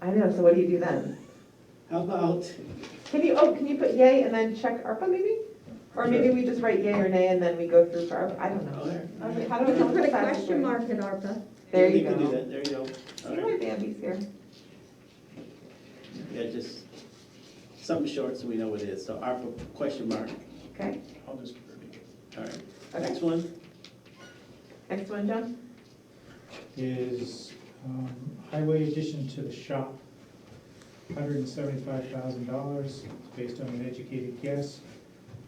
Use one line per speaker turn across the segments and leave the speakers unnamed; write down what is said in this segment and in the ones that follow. I know, so what do you do then?
How about,
Can you, oh, can you put yay and then check ARPA maybe? Or maybe we just write yay or nay and then we go through for ARPA, I don't know. I mean, How do
We
we?
can put a question mark at ARPA.
There you
can do
go.
that, there you go.
See
All
my
right.
Bambi's here.
Yeah, just something short so we know what it is. So ARPA question mark,
Okay,
I'll just repeat.
all right.
okay.
Next one,
Next one, John?
Is um, highway addition to the shop, hundred and seventy-five thousand dollars, based on an educated guess.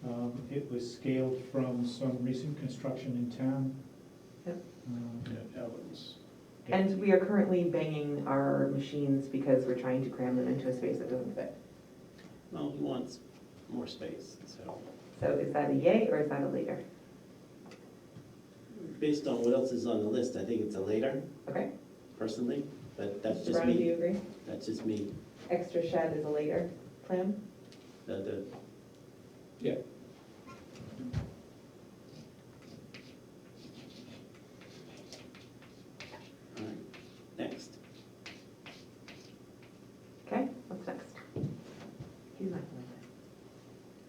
Um, It was scaled from some recent construction in town.
Yep.
Um, Yeah.
And we are currently banging our machines because we're trying to cram them into a space that doesn't fit.
well, he wants more space, so
So is that a yay or is that a later?
based on what else is on the list, I think it's a later
Okay.
personally, but that's
Mr.
just
Brown, do
me.
you agree?
That's just me,
Extra shed is a later plan?
the, the.
Yeah.
All right, next.
Okay, what's next? He's not gonna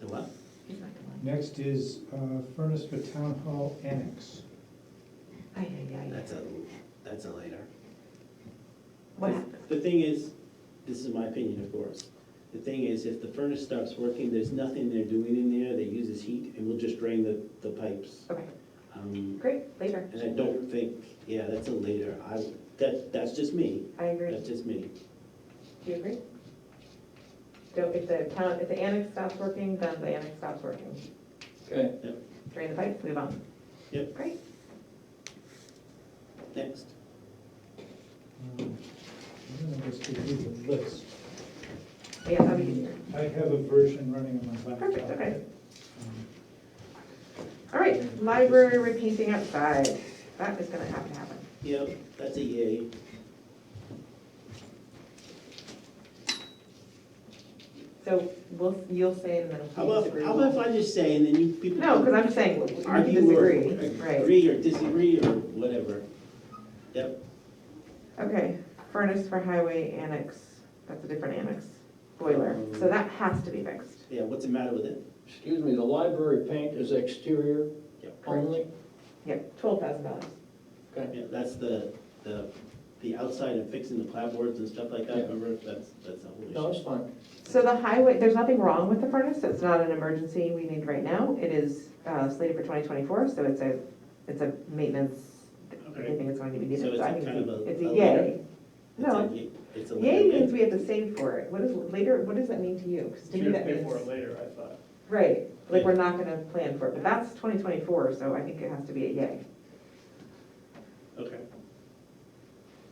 like
The what?
it. He's not gonna
Next is uh, furnace for town hall annex.
like it. Ay, ay, ay,
That's
ay.
a, that's a later.
What happened?
The thing is, this is my opinion, of course. The thing is, if the furnace stops working, there's nothing they're doing in there that uses heat, and we'll just drain the, the pipes.
Okay,
Um,
great, later.
And I don't think, yeah, that's a later, I, that, that's just me,
I agree.
that's just me.
Do you agree? So if the town, if the annex stops working, then the annex stops working.
Okay.
Drain the pipes, move on.
Yep.
Great.
Next,
Um, I don't know if this could be the list.
Yeah, that would be easier.
I have a version running on my laptop.
Perfect, okay.
Um,
All right, library repainting outside. That is gonna have to happen.
yep, that's a yay.
So we'll, you'll say and then
How
we'll
about,
disagree.
how about if I just say, and then you people.
No, because I'm just saying, we can
argue or
disagree, right?
Agree or disagree or whatever. Yep,
Okay, furnace for highway annex, that's a different annex, boiler.
Mm.
So that has to be fixed.
yeah, what's the matter with it?
Excuse me, the library paint is exterior
Yep.
only?
Yep, twelve thousand dollars.
Yeah, that's the, the, the outside of fixing the clapboards and stuff like that, remember, that's, that's the
No,
whole issue.
it's fine.
So the highway, there's nothing wrong with the furnace, it's not an emergency we need right now. It is uh, slated for twenty twenty-four, so it's a, it's a maintenance, I
Okay.
think it's going to be
So it's
needed, so I
a
think
kind
it's
of
a,
a-
it's
a
a
later?
yay.
It's a
No.
ye- It's a.
Yay
little bit.
means we have to save for it. What is, later, what does that mean to you? 'Cause to me
You have
that
to pay for
means-
it later, I thought.
Right, like we're not gonna plan for it, but that's twenty twenty-four, so I think it has to be a yay.
Okay,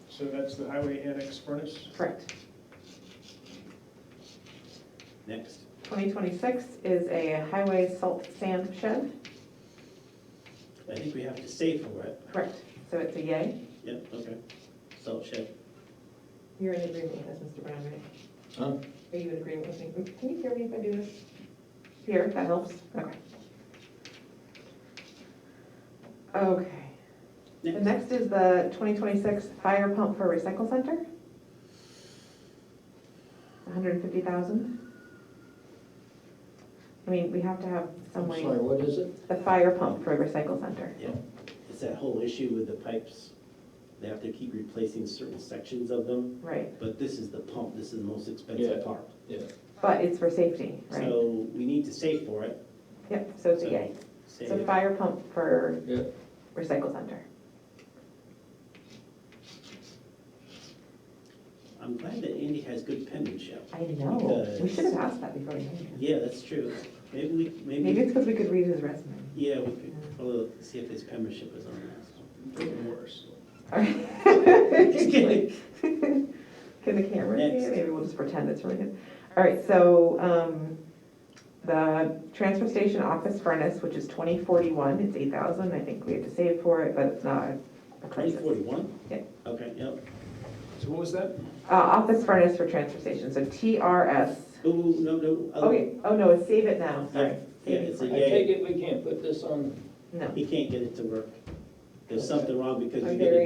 So that's the highway annex furnace?
Correct.
next.
Twenty twenty-six is a highway salt sand shed,
I think we have to save for it.
correct, so it's a yay.
Yep, okay. Salt shed.
You're in agreement with this, Mr. Brown, right?
Huh?
Are you in agreement with me? Can you hear me if I do this? Here, that helps, okay. Okay, the
Next.
next is the twenty twenty-six fire pump for recycle center. hundred and fifty thousand. I mean, we have to have some
I'm
way,
sorry, what is it?
the fire pump for recycle center.
It's that whole issue with the pipes. They have to keep replacing certain sections of them,
Right,
but this is the pump, this is the most
Yeah.
expensive part.
Yeah.
but it's for safety, right?
So we need to save for it.
Yep, so it's a
So-
yay.
Save
It's a
it.
fire pump for
Yeah.
recycle center.
I'm glad that Andy has good penmanship.
I know, we
Because-
should have asked that before we made it.
Yeah, that's true. Maybe we,
Maybe
maybe,
it's because we could read his resume.
yeah, we could, although, see if his penmanship is on that.
Worse.
Just
Can
kidding.
the camera see
Next.
it? Maybe we'll just pretend it's really good. All right, so um, the transfer station office furnace, which is 2041, it's 8,000. I think we have to save for it, but it's not a
Twenty
crisis. Uh,
forty-one?
Yeah.
Okay, yep.
So what was that?
Uh, Office furnace for transfer station, so TRS.
Ooh, no, no. uh, other-
Okay, oh no, it's save it now, sorry.
Yeah,
Save
it's a
I
yay.
take it we can't put this on
No.
He can't get it to work. There's something wrong because
I'm
you
very
didn't